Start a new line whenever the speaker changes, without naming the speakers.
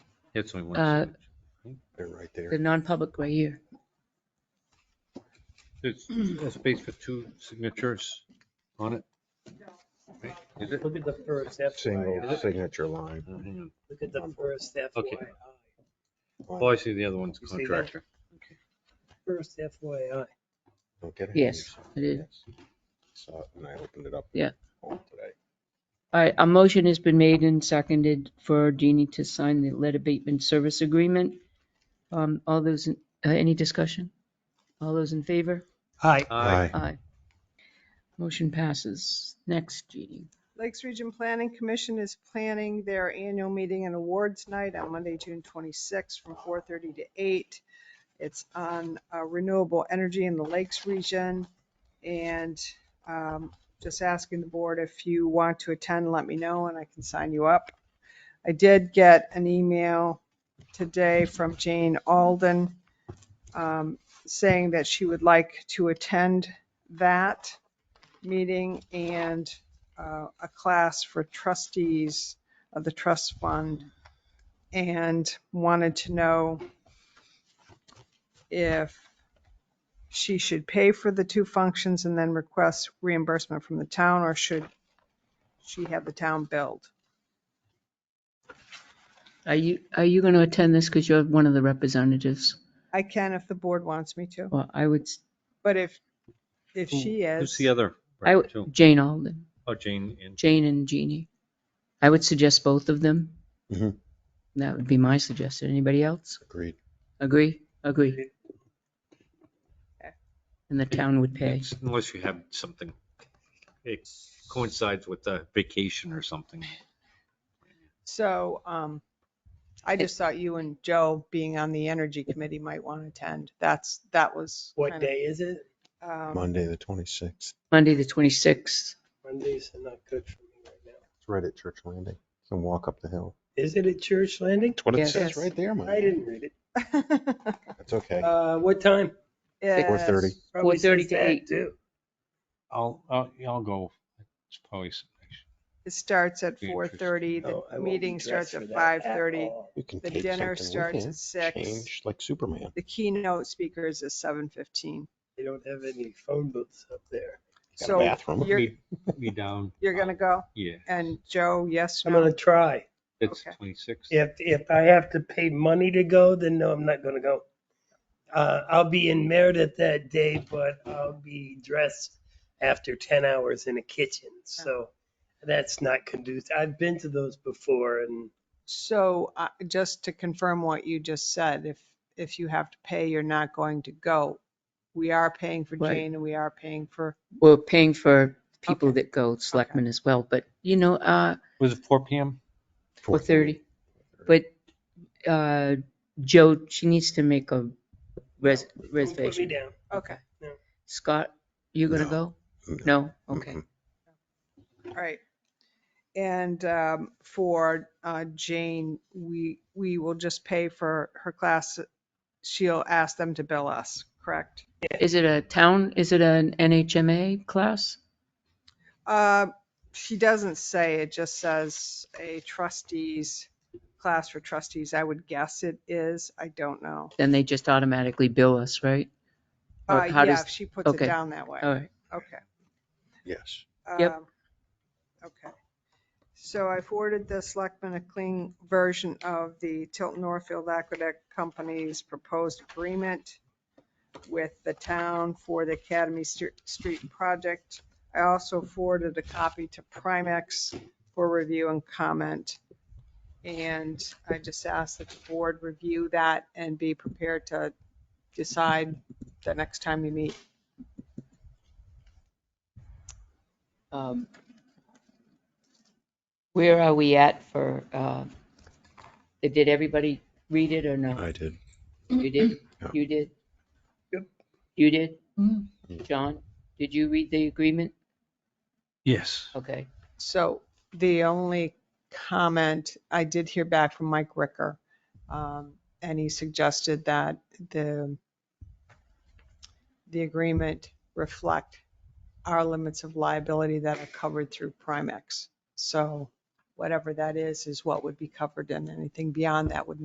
It's only
Uh,
one seat.
They're right
The
there.
non-public right here.
There's a space for two signatures on it. Right? Is it?
Look at the first FYI.
Single signature line.
Oh, hang on.
Look at the first
Okay.
FYI.
Oh, I see the other one's
You see that?
contractor.
First FYI.
Don't get ahead of
Yes,
yourself.
it is.
Yes. Saw it when I opened it up.
Yeah.
home Today.
All right, a motion has been made and seconded for Jeannie to sign the lead abatement service agreement. Um, all those, in- uh, any discussion? All those in favor?
Hi.
Aye.
Aye. Motion passes. Next, Jeannie.
Lakes Region Planning Commission is planning their annual meeting and awards night on Monday, June 26th from 4:30 to 8. It's on uh, renewable energy in the Lakes Region. And um, just asking the board if you want to attend, let me know and I can sign you up. I did get an email today from Jane Alden um, saying that she would like to attend that meeting and uh, a class for trustees of the trust fund and wanted to know if she should pay for the two functions and then request reimbursement from the town, or should she have the town billed?
Are you, are you going to attend this because you're one of the representatives?
I can if the board wants me to,
Well, I would, s-
but if, if she
Who's
is,
the other?
I,
rep,
would-
too?
Jane Alden,
Oh, Jane and
Jane and Jeannie. I would suggest both of them.
Mhm.
That would be my suggestion. Anybody else?
Agreed.
Agree? Agree. And the town would pay.
It's- Unless you have something, it coincides with a vacation or something.
so um, I just thought you and Joe being on the energy committee might want to attend. That's, that was.
What
kind of,
day is it?
um,
Monday, the 26th. It's
Monday, the 26th.
Mondays are not good for me right now.
right at Church Landing. You can walk up the hill.
Is it at Church Landing?
That's what it
Yes.
says right there,
I
Mike.
didn't read it.
That's okay.
Uh, what time?
Yes.
4:30.
Probably
4:30
says
to
that,
8.
too.
I'll, I'll, I'll go. It's probably. s-
It starts at
Be
four
interesting.
thirty,
No,
the
Oh, I won't be
meeting
dressed
starts
for
at
that
five thirty,
all.
You can
the
take
dinner
something with
starts at
you.
six.
Change like Superman.
the keynote speaker is at seven fifteen.
They don't have any phone booths up there.
Got a
So
bathroom.
you're,
Me- Me down.
you're gonna go?
Yeah,
And Joe, yes,
I'm
no?
gonna try.
it's
Okay.
26.
If, if I have to pay money to go, then no, I'm not gonna go. Uh, I'll be in Meredith that day, but I'll be dressed after ten hours in a kitchen, so that's not conducive. I've been to those before and
So, uh, just to confirm what you just said, if, if you have to pay, you're not going to go. We are paying for
Right.
Jane and we are paying for,
We're paying for people
Okay.
that go, selectmen as well, but you know, uh,
Was it 4 PM?
4:30. But, uh, Joe, she needs to make a res-
don't put me
reservation.
down.
okay,
Scott, you gonna go? No? Okay.
Mm-mm.
all right. And um, for uh, Jane, we, we will just pay for her class. She'll ask them to bill us, correct?
Is it a town, is it an NHMA class?
Uh, She doesn't say, it just says a trustees, class for trustees. I would guess it is. I don't know.
Then they just automatically bill us, right? Or
Uh,
how
Yeah,
does-
if she puts it
okay. Oh.
down that way.
All right,
Okay.
Yes.
Yep.
Um, Okay. So I forwarded the selectmen a clean version of the Tilton Northfield Aqueduct Company's proposed agreement with the town for the Academy Stre- Street project. I also forwarded a copy to Primex for review and comment. And I just asked that the board review that and be prepared to decide the next time you meet.
um, Where are we at for, uh, did everybody read it or no?
I did.
You did?
Yeah.
You did?
Yep.
You did?
Mm.
John, did you read the agreement?
Yes.
Okay.
So the only comment, I did hear back from Mike Ricker, um, and he suggested that the, the agreement reflect our limits of liability that are covered through Primex. So whatever that is, is what would be covered, and anything beyond that would